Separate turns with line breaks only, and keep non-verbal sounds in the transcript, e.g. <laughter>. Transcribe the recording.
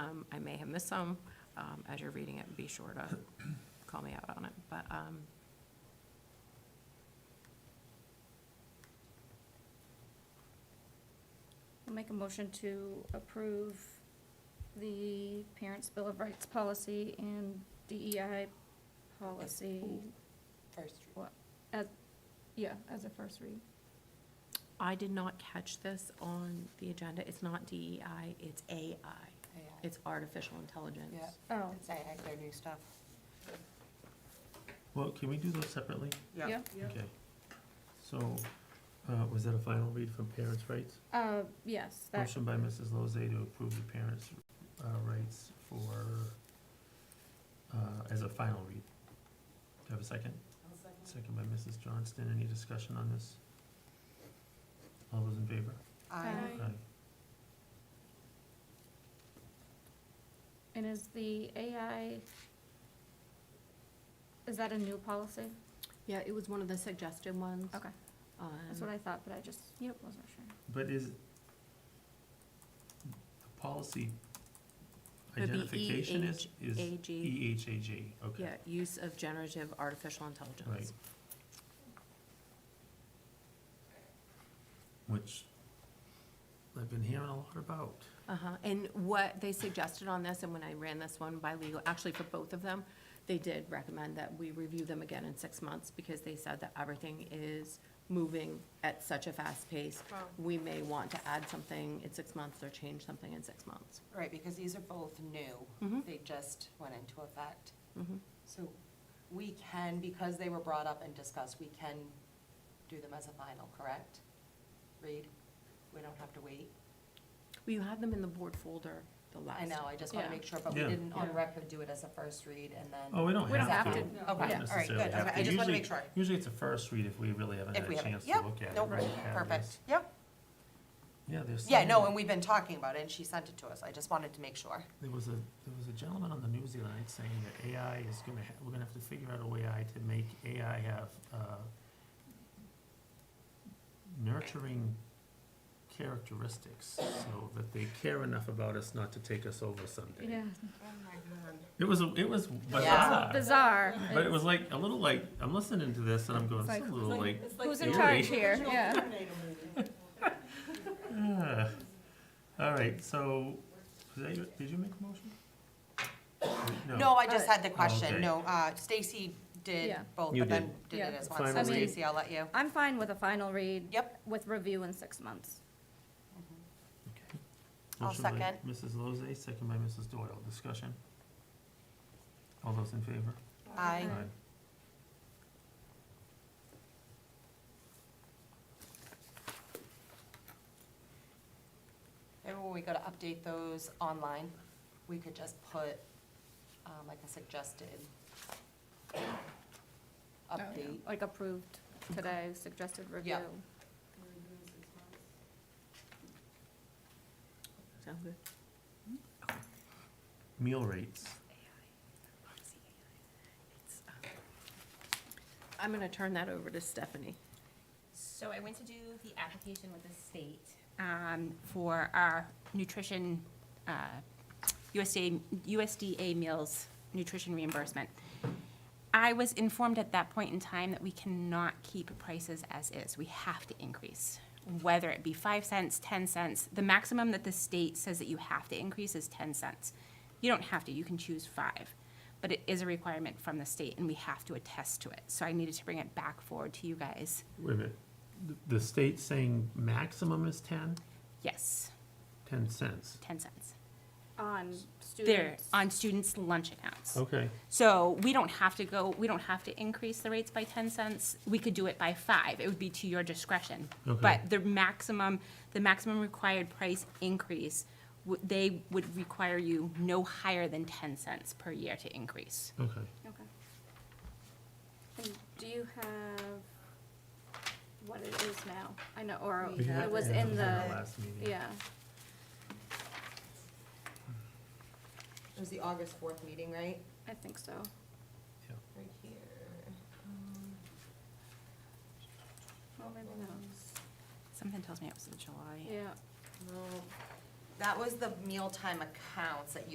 miss some, um, as you're reading it, be sure
<clears throat>
to call me out on it, but, um,
I'll make a motion to approve the Parents' Bill of Rights policy and DEI policy,
First,
yeah, as a first read.
I did not catch this on the agenda. It's not DEI, it's AI.
AI,
It's artificial intelligence.
Yeah.
Oh,
it's AI, their new stuff.
Well, can we do those separately?
yeah,
Okay. So, uh, was that a final read from parents' rights?
uh, yes, that,
Motion by Mrs. Lozay to approve the parents' uh, rights for, uh, as a final read. Do you have a second? Second by Mrs. Johnston. Any discussion on this? All those in favor?
Aye.
Aye.
and is the AI, is that a new policy?
Yeah, it was one of the suggested ones.
Okay,
Um,
that's what I thought, but I just
Yep.
wasn't sure.
But is the policy
Would be
E
identification is, is
AG,
EHAG, E, okay.
yeah, use of generative artificial
Right.
intelligence.
Which I've been hearing a lot about.
Uh-huh, and what they suggested on this, and when I ran this one by legal, actually for both of them, they did recommend that we review them again in six months, because they said that everything is moving at such a fast pace.
Wow.
We may want to add something in six months or change something in six months.
Right, because these are both new.
Mhm.
They just went into effect.
Mhm.
So we can, because they were brought up and discussed, we can do them as a final, correct? Read? We don't have to wait?
Well, you had them in the board folder the last.
I know, I just want
Yeah.
to make sure, but we
Yeah.
didn't on
Yeah.
record do it as a first read and then.
Oh, we don't
We don't
have to.
have to.
We don't
Okay, all right,
necessarily
good.
have
Okay, I
to.
just wanted to
Usually-
make sure.
Usually it's a first read if we really haven't
If
had
we
a
haven't-
chance to
yep,
look at it.
Nope,
right, have
perfect.
this.
Yep.
Yeah, there's.
Yeah,
some-
no, and we've been talking about it and she sent it to us. I just wanted to make sure.
There was a, there was a gentleman on the news the other night saying that AI is gonna, ha- we're gonna have to figure out a way I to make AI have, uh, nurturing characteristics, so that they care enough about us not to take us over someday.
Yeah,
It was, a- it was
Yeah.
bizarre,
bizarre.
but it was like, a little like, I'm listening to this and I'm going,
It's
it's a
like-
little like,
Who's in
eerie.
charge here? Yeah.
ah. All right, so, was that your- did you make a motion?
No, I just had the
Oh, okay.
question. No, uh, Stacy did
Yeah.
both,
You
but then
did.
did
Yeah.
it as one. So
Final
read.
Stacy, I'll let you.
I'm fine with a final read.
Yep.
With review in six months.
Okay.
I'll
Motion by
second.
Mrs. Lozay, second by Mrs. Doyle. Discussion? All those in favor?
Aye. Remember when we go to update those online, we could just put, um, like a suggested
Oh, yeah.
update.
Like approved today, suggested review.
Sound good?
Meal rates.
I'm gonna turn that over to Stephanie.
So I went to do the application with the state um, for our nutrition, uh, USDA, USDA meals nutrition reimbursement. I was informed at that point in time that we cannot keep prices as is. We have to increase, whether it be five cents, ten cents. The maximum that the state says that you have to increase is ten cents. You don't have to, you can choose five, but it is a requirement from the state and we have to attest to it. So I needed to bring it back forward to you guys.
Wait a minute. The- The state saying maximum is ten,
Yes,
ten cents.
ten cents.
On
They're
students.
on students' lunch accounts.
Okay.
So we don't have to go, we don't have to increase the rates by ten cents. We could do it by five. It would be to your discretion.
Okay.
But the maximum, the maximum required price increase, would- they would require you no higher than ten cents per year to increase.
Okay.
Okay. And do you have what it is now? I know, or
We had-
it was
yeah,
in the,
last meeting.
yeah,
It was the August fourth meeting, right?
I think so.
Right here.
Well, maybe not.
Something tells me it was in July.
Yeah.
No, That was the mealtime accounts that you